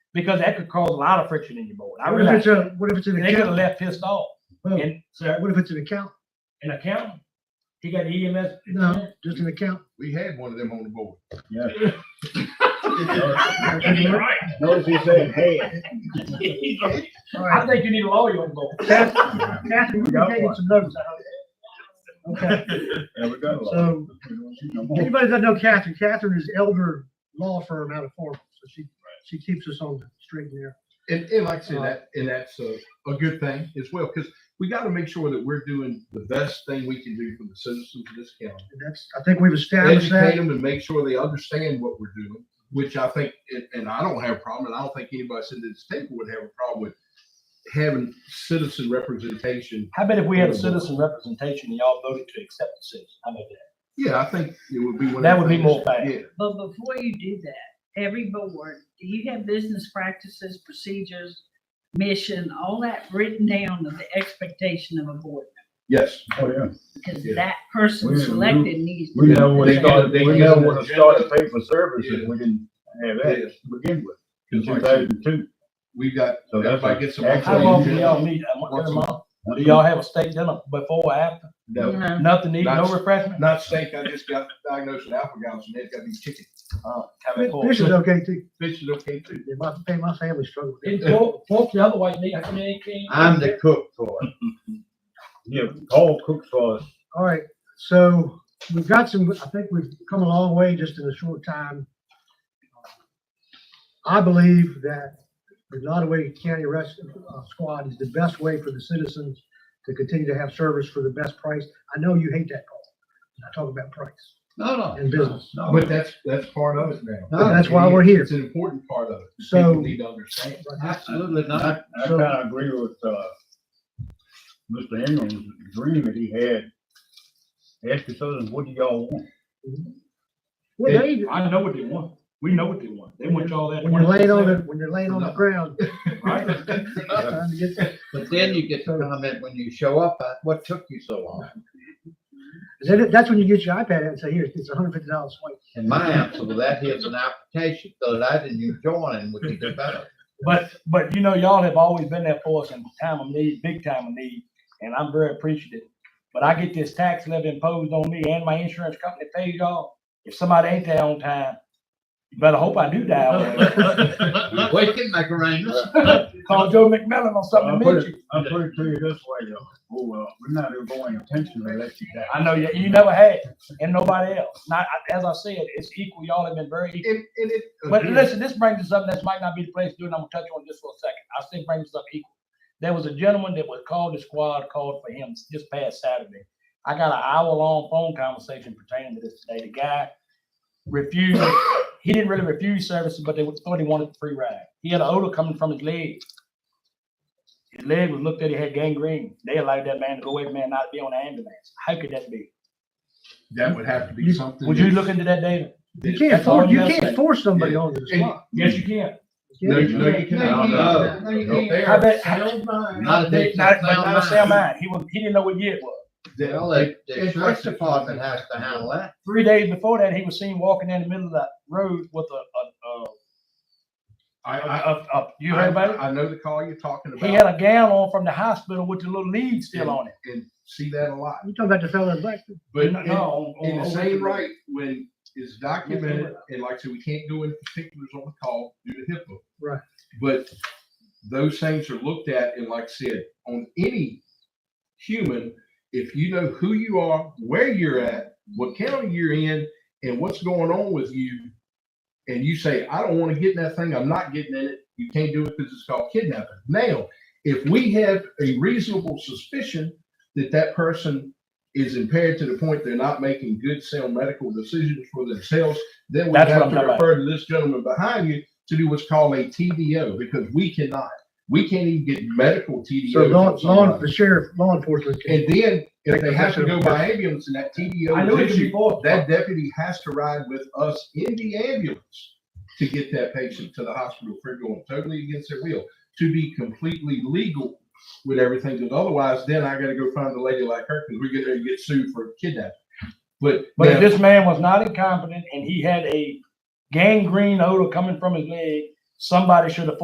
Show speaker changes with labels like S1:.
S1: because that could cause a lot of friction in your board. I
S2: What if
S1: realize
S2: it's a, what if it's an
S1: they could have
S2: account?
S1: left pissed off.
S2: Well,
S1: And sir,
S2: What if it's an account?
S1: an accountant, he got E EMS.
S2: No, just an account.
S3: We had one of them on the board.
S1: Right.
S4: Notice he said, hey,
S2: All
S1: I
S2: right.
S1: think you need a lawyer on the board.
S2: Kathy, Kathy, we're
S4: Got
S2: taking
S4: one.
S2: some notes out. Okay,
S4: there we go.
S2: so anybody that know Catherine, Catherine is elder law firm out of Florida, so she, she keeps us on the straight and narrow.
S3: And, and like I said,
S2: Uh,
S3: that, and that's a, a good thing as well, because we got to make sure that we're doing the best thing we can do for the citizens of this county.
S2: And that's, I think we've established
S3: Educate
S2: that.
S3: them and make sure they understand what we're doing, which I think, and- and I don't have a problem, and I don't think anybody sitting at this table would have a problem with having citizen representation.
S1: How about if we had a citizen representation and y'all voted to accept the citizen? How about that?
S3: Yeah, I think it would be. one of
S1: That
S3: the
S1: would be
S3: things-
S1: more fair.
S3: Yeah,
S5: But before you do that, every board, do you have business practices, procedures, mission, all that written down of the expectation of a board?
S3: yes.
S4: Oh, yeah.
S5: Because
S3: Yeah.
S5: that person
S4: We-
S5: selected needs.
S4: We know when
S3: They
S4: to start,
S3: gotta- they
S4: we know
S3: gotta-
S4: when to start to pay for services.
S3: Yeah.
S4: We didn't have that to begin with, in
S3: It's
S4: two
S3: like-
S4: thousand two.
S3: We've got,
S4: So that's
S3: everybody gets some.
S4: excellent.
S1: How long do y'all meet? Uh, once a month? Do y'all have a state dinner before or after?
S3: No,
S5: No,
S1: Nothing to eat, no
S3: That's-
S1: refreshment?
S3: not saying I just got diagnosed with alpha-gal, and it's got to be chicken.
S1: Uh, how about pork?
S2: This is okay too.
S3: Fish is okay too.
S2: Yeah, My, hey, my family struggled with
S1: It's
S2: it.
S1: pork- Pork's the other white meat. I mean, it can't-
S6: I'm the cook for it.
S4: Yeah, Paul cooks for us.
S2: All right, so we've got some, I think we've come a long way just in a short time. I believe that the Nottaway County Res- uh, Squad is the best way for the citizens to continue to have service for the best price. I know you hate that call. when I talk about price
S6: No, no.
S2: and business.
S6: no.
S3: But that's, that's part of it now.
S2: No, that's why we're here.
S3: It's an important part of it.
S2: So-
S3: People need to understand.
S6: Absolutely
S4: I,
S6: not.
S4: I kind of agree with, uh, Mr. Ingram's dream that he had. Ask the citizens, what do y'all want?
S2: Well, they-
S1: I know what they want. We know what they want. They want y'all that.
S2: When you're laying on the, when you're laying on the ground.
S1: Right.
S2: trying to get-
S6: But then you get the comment when you show up, uh, what took you so long?
S2: Then that's when you get your iPad out and say, here, it's hundred fifty dollars.
S6: And my answer to that is an application, so that I didn't join, would be the better.
S1: But, but you know, y'all have always been there for us in time of need, big time of need, and I'm very appreciative. But I get this tax levy imposed on me and my insurance company pays y'all. If somebody ain't there on time, you better hope I do die. on it.
S6: We can make arrangements.
S1: Call Joe McMillan on something to meet you.
S4: I'll put it to you this way, though. Oh, well, we're not even going intentionally let you down.
S1: I know you, you never had, and nobody else. Not, as I said, it's equal. Y'all have been very equal.
S3: And, and it.
S1: But
S3: again,
S1: listen, this brings us up, this might not be the place to do it, and I'm gonna touch on this for a second. I think brings us up equal. There was a gentleman that was called, the squad called for him this past Saturday. I got an hour-long phone conversation pertaining to this today. The guy refused, he didn't really refuse services, but they thought he wanted a free ride. He had an odor coming from his leg. His leg was looked at, he had gangrene. They allowed that man to go away, man, not be on the ambulance. How could that be?
S3: That would have to be something.
S1: Would you
S3: that's-
S1: look into that, David?
S2: You
S3: that-
S2: can't
S1: That's all
S2: force, you
S1: I'm
S2: can't
S1: saying.
S2: force somebody on the spot.
S1: Yes, you can.
S3: No, you- no, you
S6: I don't
S3: cannot.
S6: know. Nope.
S1: I bet.
S6: Not a big-
S1: Not, not, not a sound
S6: Well,
S1: mind. He was, he didn't know what year it was.
S6: the the sheriff's department has to handle that.
S1: Three days before that, he was seen walking in the middle of the road with a,
S3: I,
S1: a, a,
S3: I,
S1: a, a- you heard about it?
S3: I know the call you're talking
S1: He had
S3: about
S1: a gown on from the hospital with the little lead still on it.
S3: and see that a lot.
S2: You talking about the fellow in Blackford?
S3: But
S1: No,
S3: in,
S1: no, on-
S3: in the
S1: on-
S3: same right, when it's documented, and like I said, we can't go into particulars on the call due to HIPAA.
S2: Right.
S3: But those things are looked at, and like I said, on any human, if you know who you are, where you're at, what county you're in, and what's going on with you, and you say, I don't want to get in that thing, I'm not getting in it, you can't do it because it's called kidnapping. Now, if we have a reasonable suspicion that that person is impaired to the point they're not making good sound medical decisions for themselves, then we
S1: That's what
S3: have
S1: I'm
S3: to
S1: talking about.
S3: refer to this gentleman behind you to do what's called a TDO because we cannot. We can't even get medical TDO.
S2: So law,
S3: from
S2: law,
S3: somebody.
S2: the sheriff, law enforcement. can-
S3: And then if they have to go by ambulance and that
S1: I knew
S3: TDO
S1: it
S3: is
S1: was
S3: issued,
S1: before.
S3: that deputy has to ride with us in the ambulance to get that patient to the hospital for going totally against their will, to be completely legal with everything, because otherwise then I gotta go find a lady like her, because we're gonna get sued for kidnapping. But,
S1: But if
S3: but
S1: this man was not incompetent and he had a gangrene odor coming from his leg, somebody should have